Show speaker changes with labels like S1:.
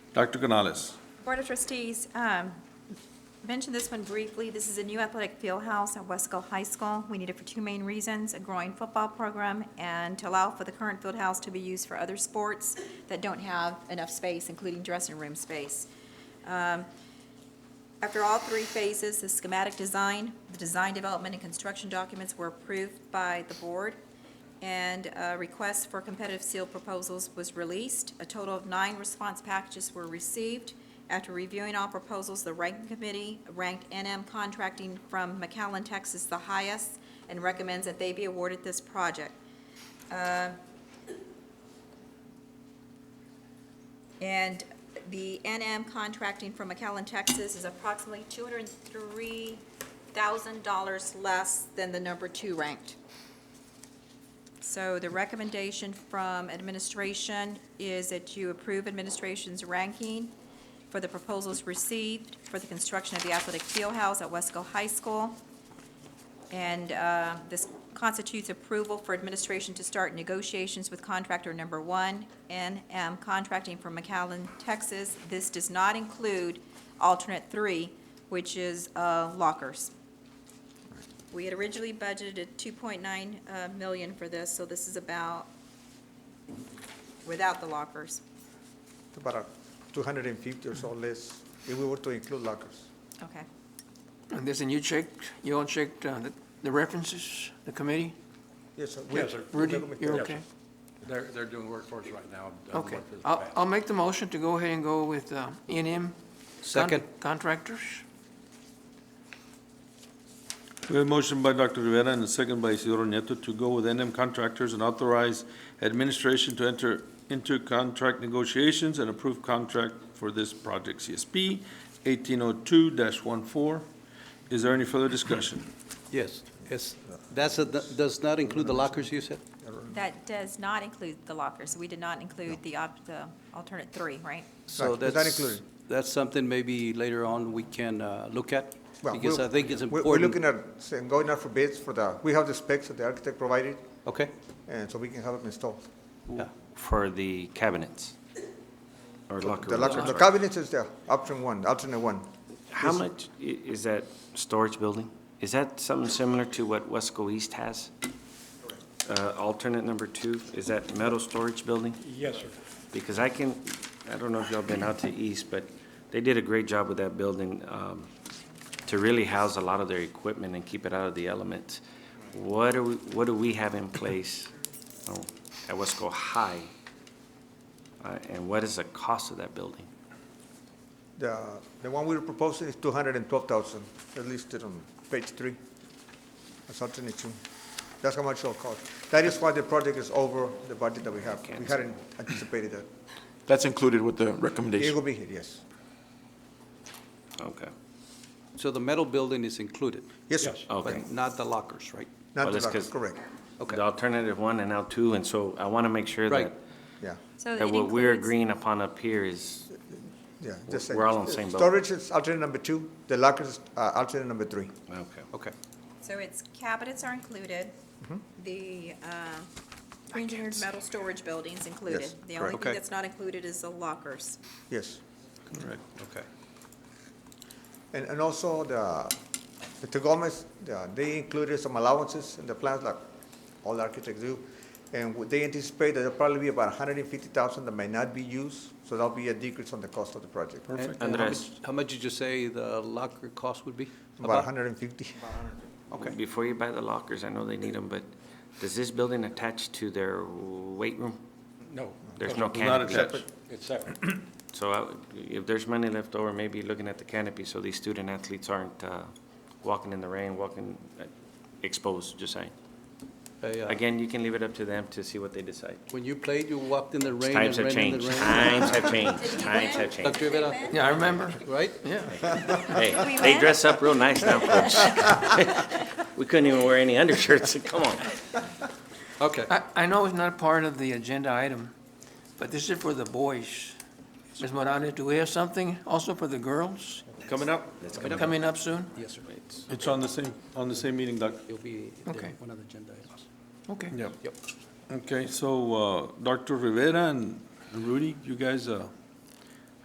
S1: Dr. Canales.
S2: Board of Trustees, um, mentioned this one briefly. This is a new athletic field house at West Gull High School. We need it for two main reasons, a growing football program and to allow for the current field house to be used for other sports that don't have enough space, including dressing room space. Um, After all three phases, the schematic design, the design development, and construction documents were approved by the board, and a request for competitive sealed proposals was released. A total of nine response packages were received. After reviewing all proposals, the ranking committee ranked NM Contracting from McAllen, Texas, the highest, and recommends that they be awarded this project. And the NM contracting from McAllen, Texas is approximately $203,000 less than the number two ranked. So the recommendation from administration is that you approve administration's ranking for the proposals received for the construction of the athletic field house at Wesco High School. And uh, this constitutes approval for administration to start negotiations with contractor number one, NM Contracting from McAllen, Texas. This does not include alternate three, which is uh, lockers. We had originally budgeted 2.9 uh, million for this, so this is about, without the lockers.
S3: About a 250 or so less if we were to include lockers.
S2: Okay.
S4: And this, and you checked, you all checked uh, the- the references, the committee?
S3: Yes, sir.
S5: Yes, sir.
S3: We- we
S4: Rudy,
S3: recommend-
S4: you're
S5: Yes,
S4: okay?
S5: They're, they're doing work for us right now. uh,
S4: Okay.
S5: work for the
S4: I'll,
S5: past.
S4: I'll make the motion to go ahead and go with uh, NM.
S6: Second.
S4: con- Contractors.
S1: We have a motion by Dr. Rivera and a second by Isidro Nieto to go with NM Contractors and authorize administration to enter into contract negotiations and approve contract for this project CSP 1802-14. Is there any further discussion?
S6: Yes, yes. That's, a- that does not include the lockers you said?
S2: That does not include the lockers. We did not include the op- the alternate three, right?
S6: So
S3: Right, does that
S6: that's-
S3: include
S6: That's something maybe later on we can uh, look at,
S3: Well,
S6: because
S3: we'll-
S6: I think it's
S3: we-
S6: important.
S3: We're looking at saying going out for bids for the, we have the specs that the architect provided,
S6: Okay,
S3: and so we can have them installed.
S6: yeah.
S7: for the cabinets or locker
S3: The
S7: rooms,
S3: locker,
S7: I'm
S3: the
S7: sorry.
S3: cabinet is the option one, alternate one.
S7: How much i- is that storage building? Is that something similar to what Wesco East has? Uh, alternate number two, is that metal storage building?
S5: Yes, sir.
S7: Because I can, I don't know if y'all been out to East, but they did a great job with that building, um, to really house a lot of their equipment and keep it out of the elements. What do we, what do we have in place oh, at Wesco High? Uh, and what is the cost of that building?
S3: The, the one we're proposing is 212,000, that's listed on page three. That's alternate two. That's how much it'll cost. That is why the project is over the budget that we have. We hadn't anticipated that.
S8: That's included with the
S3: It
S8: recommendation.
S3: will be here, yes.
S7: Okay.
S6: So the metal building is included,
S3: Yes, sir.
S5: Yes.
S7: Okay.
S6: but not the lockers, right?
S3: Not
S7: Well,
S3: the
S7: that's
S3: locker,
S7: 'cause-
S3: correct,
S6: Okay.
S7: The alternative one and now two, and so I want to make sure that,
S6: Right.
S3: yeah.
S2: So
S7: that
S2: it
S7: what we're
S2: includes-
S7: agreeing upon up here is,
S3: Yeah, just
S7: We're all on the same boat.
S3: Storage is alternate number two, the lockers is uh, alternate number three.
S7: okay.
S6: Okay.
S2: So it's cabinets are included, the um, engineered metal storage buildings included.
S3: Yes,
S2: The only
S3: correct.
S2: thing
S6: Okay.
S2: that's not included is the lockers.
S3: Yes,
S1: Correct.
S6: Okay.
S3: and, and also the, the Tagomas, the- they included some allowances in the plans like all architects do. And what they anticipate that there'll probably be about hundred and fifty thousand that may not be used, so that'll be a decrease on the cost of the project.
S6: And- and how
S7: Andres.
S6: much- How much did you say the locker cost would be?
S3: About hundred and fifty.
S6: Okay,
S7: Before you buy the lockers, I know they need them, but does this building attach to their weight room?
S5: No.
S7: There's no
S1: Not
S7: canopy.
S1: attached.
S5: It's separate.
S7: So I- if there's money left over, maybe looking at the canopy so these student athletes aren't uh, walking in the rain, walking uh, exposed, just saying.
S6: Hey, uh,
S7: Again, you can leave it up to them to see what they decide.
S6: When you played, you walked in the rain and
S7: Times have
S6: ran in the
S7: changed,
S6: rain.
S7: times have changed, times have changed.
S6: Dr. Rivera,
S4: Yeah, I remember.
S6: right?
S4: Yeah.
S7: Hey,
S2: We
S7: they
S2: win.
S7: dress up real nice now, folks. We couldn't even wear any undershirts, come on.
S6: Okay.
S4: I, I know it's not part of the agenda item, but this is for the boys. Ms. Morales, do we have something also for the girls
S1: Coming up?
S4: coming up soon?
S6: Yes, sir.
S1: It's on the same, on the same meeting, Doc.
S6: It'll be the-
S4: Okay.
S6: one of the agenda items.
S4: Okay.
S1: Okay, so uh, Dr. Rivera and Rudy, you guys uh,